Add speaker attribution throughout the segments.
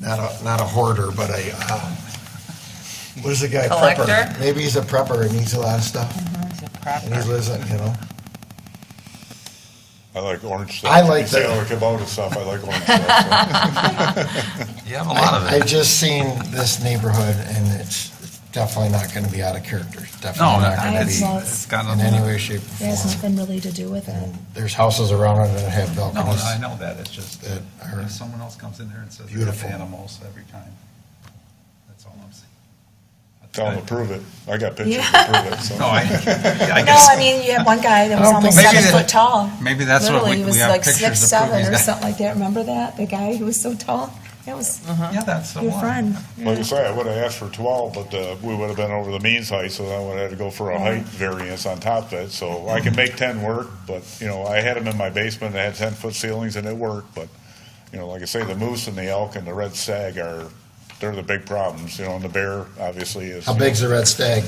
Speaker 1: not a, not a hoarder, but a, um, what is the guy?
Speaker 2: Collector?
Speaker 1: Prepper. Maybe he's a prepper and needs a lot of stuff,
Speaker 2: He's a
Speaker 1: and he
Speaker 2: prepper.
Speaker 1: lives, on, you know,
Speaker 3: I like orange stuff.
Speaker 1: I like
Speaker 3: You say
Speaker 1: that.
Speaker 3: I like about it stuff, I like orange stuff. so.
Speaker 4: You have a lot of
Speaker 1: I've
Speaker 4: it.
Speaker 1: just seen this neighborhood, and it's definitely not gonna be out of character, It's
Speaker 4: No,
Speaker 1: definitely not
Speaker 4: that-
Speaker 1: gonna
Speaker 4: it's,
Speaker 1: be
Speaker 4: it's got
Speaker 1: in any
Speaker 4: nothing.
Speaker 1: way, shape,
Speaker 5: It
Speaker 1: or
Speaker 5: has
Speaker 1: form. Mm.
Speaker 5: nothing really to do with it.
Speaker 1: And There's houses around it that have
Speaker 4: No,
Speaker 1: balconies.
Speaker 4: I know that, it's just,
Speaker 1: That are
Speaker 4: if someone else comes in there and says they have
Speaker 1: beautiful.
Speaker 4: animals every time, that's all I'm saying.
Speaker 3: Tell them to
Speaker 4: I-
Speaker 3: prove it. I got pictures to prove it, so.
Speaker 4: No, I, I
Speaker 2: No,
Speaker 4: guess,
Speaker 2: I mean, you had one guy that was
Speaker 1: I don't
Speaker 2: almost
Speaker 1: think-
Speaker 2: seven
Speaker 4: Maybe that-
Speaker 2: foot tall.
Speaker 4: maybe that's what
Speaker 2: Literally,
Speaker 4: we,
Speaker 2: he
Speaker 4: we
Speaker 2: was
Speaker 4: have
Speaker 2: like six,
Speaker 4: pictures to prove
Speaker 2: seven or
Speaker 4: he's got.
Speaker 2: something like that. Remember that? The guy who was so tall? That was
Speaker 1: Uh-huh.
Speaker 4: Yeah, that's the
Speaker 2: your
Speaker 4: one.
Speaker 2: friend.
Speaker 3: Like I say, I would have asked for twelve, but uh, we would have been over the means height, so I would have had to go for a height variance on top of it. So I can make ten work, but, you know, I had them in my basement, I had ten-foot ceilings and it worked, but, you know, like I say, the moose and the elk and the red stag are, they're the big problems, you know, and the bear obviously is.
Speaker 1: How big's the red stag?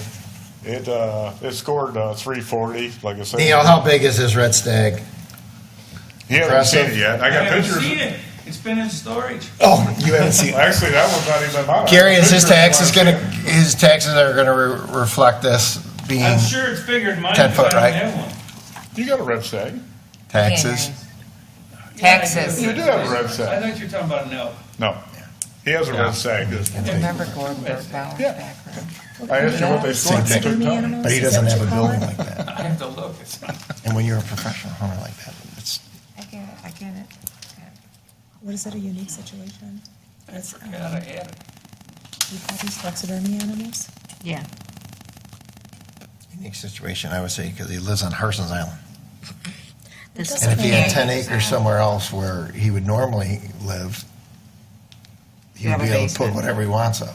Speaker 3: It, uh, it scored, uh, three forty, like I said.
Speaker 1: Neil, how big is this red stag?
Speaker 3: He hasn't seen it
Speaker 1: impressive?
Speaker 3: yet. I
Speaker 6: I
Speaker 3: got
Speaker 6: haven't
Speaker 3: pictures.
Speaker 6: seen it. It's been in storage.
Speaker 1: Oh, you haven't seen.
Speaker 3: Actually, that one's not even mine.
Speaker 1: Gary, is his
Speaker 3: Pictures
Speaker 1: taxes
Speaker 3: mine.
Speaker 1: gonna, his taxes are gonna re- reflect this being
Speaker 6: I'm sure it's bigger than mine.
Speaker 1: 10
Speaker 6: because
Speaker 1: foot,
Speaker 6: I
Speaker 1: right?
Speaker 6: don't have one.
Speaker 3: You got a red stag.
Speaker 1: taxes?
Speaker 2: Taxes.
Speaker 3: You do have a red
Speaker 6: I
Speaker 3: stag.
Speaker 6: thought you were talking about an elk.
Speaker 3: No. He has a
Speaker 4: Yeah.
Speaker 3: red stag.
Speaker 2: Remember Gordon Birdbauer's
Speaker 3: Yeah.
Speaker 2: background?
Speaker 3: I asked you what they scored.
Speaker 1: Same
Speaker 3: You
Speaker 1: thing.
Speaker 3: couldn't tell me.
Speaker 1: But he doesn't have a building like that.
Speaker 6: I have to look. It's not.
Speaker 1: And when you're a professional hunter like that, it's,
Speaker 2: I get it, I get it.
Speaker 5: What is that, a unique situation?
Speaker 6: I forgot I had it.
Speaker 5: You have these taxidermy animals?
Speaker 2: Yeah.
Speaker 1: unique situation, I would say, because he lives on Harson's Island.
Speaker 2: This
Speaker 5: doesn't
Speaker 1: And if he had
Speaker 5: Yeah.
Speaker 1: ten acres somewhere else where he would normally live, he
Speaker 2: You
Speaker 1: would
Speaker 2: have
Speaker 1: be
Speaker 2: a
Speaker 1: able to put
Speaker 2: basement.
Speaker 1: whatever he wants up.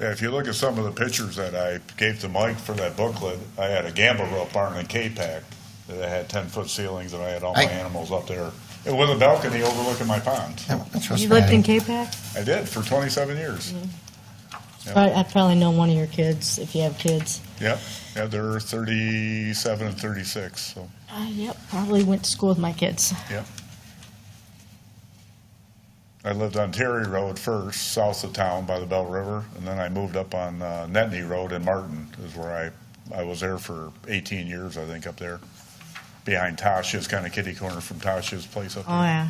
Speaker 3: Yeah, if you look at some of the pictures that I gave to Mike for that booklet, I had a gamble rope barn in K-Pac that I had ten-foot ceilings and I had all my
Speaker 1: I-
Speaker 3: animals up there. And with a balcony overlooking my pond.
Speaker 1: Yeah, that's what's
Speaker 7: You lived in
Speaker 1: bad.
Speaker 7: K-Pac?
Speaker 3: I did for twenty-seven years.
Speaker 1: Mm-hmm.
Speaker 7: Probably- I probably know one of your kids, if you have kids.
Speaker 3: Yep. Yeah, they're thirty-seven and thirty-six, so,
Speaker 7: Uh, yep, probably went to school with my kids.
Speaker 3: yep. I lived on Terry Road first, south of town by the Bell River, and then I moved up on, uh, Netney Road in Martin is where I, I was there for eighteen years, I think, up there. Behind Tasha's, kind of kitty corner from Tasha's place up there.
Speaker 7: Oh, yeah.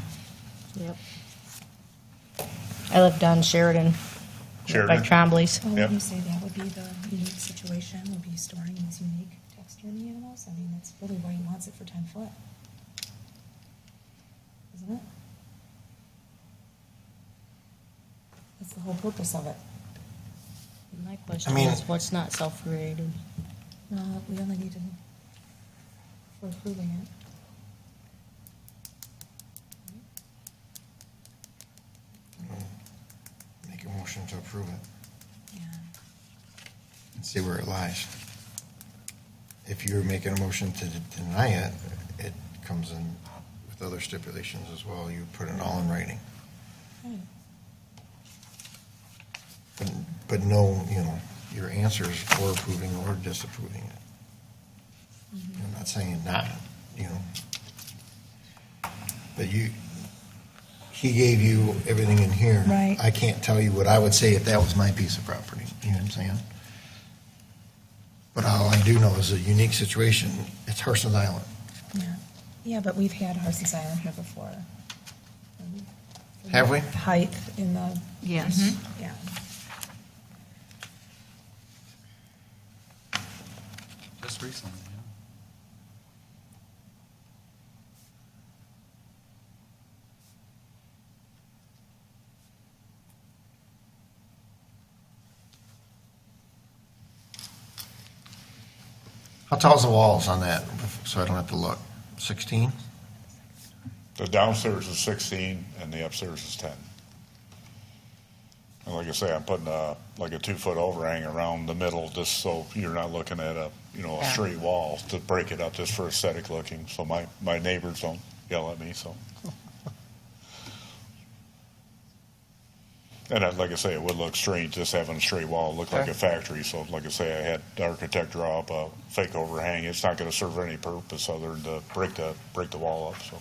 Speaker 7: Yep. I lived on Sheridan. right By
Speaker 3: Sheridan?
Speaker 7: Trombley's.
Speaker 5: Well,
Speaker 3: Yep.
Speaker 5: would you say that would be the unique situation, would be storing these unique taxidermy animals? I mean, that's really why he wants it for ten foot. Isn't it? That's the whole purpose of it.
Speaker 7: My question
Speaker 1: mean-
Speaker 7: is, what's not self-created?
Speaker 5: No, we only need to, we're approving it.
Speaker 1: Make a motion to approve it
Speaker 5: Yeah.
Speaker 1: and see where it lies. If you're making a motion to deny it, it comes in with other stipulations as well. You put it all in writing. But, but no, you know, your answers for approving or disapproving it. I'm not saying not, you know. But you, he gave you everything in here.
Speaker 5: Right.
Speaker 1: I can't tell you what I would say if that was my piece of property, you know what I'm saying? But all I do know is a unique situation, it's Harson's Island.
Speaker 5: Yeah. Yeah, but we've had Harson's Island here before.
Speaker 1: Have we?
Speaker 5: Height in the, Mm-hmm.
Speaker 7: Yes.
Speaker 5: yeah.
Speaker 4: Just recently, yeah.
Speaker 1: How tall's the walls on that, so I don't have to look? Sixteen?
Speaker 3: The downstairs is sixteen and the upstairs is ten. And like I say, I'm putting a, like a two-foot overhang around the middle, just so you're not looking at a, you know, a
Speaker 2: Yeah.
Speaker 3: straight wall to break it up just for aesthetic looking, so my, my neighbors don't yell at me, so. And I, like I say, it would look strange just having a straight wall, It looked like a factory, so like I say, I had the architect draw up a fake overhang. It's not gonna serve any purpose other than to break the, break the wall up, so.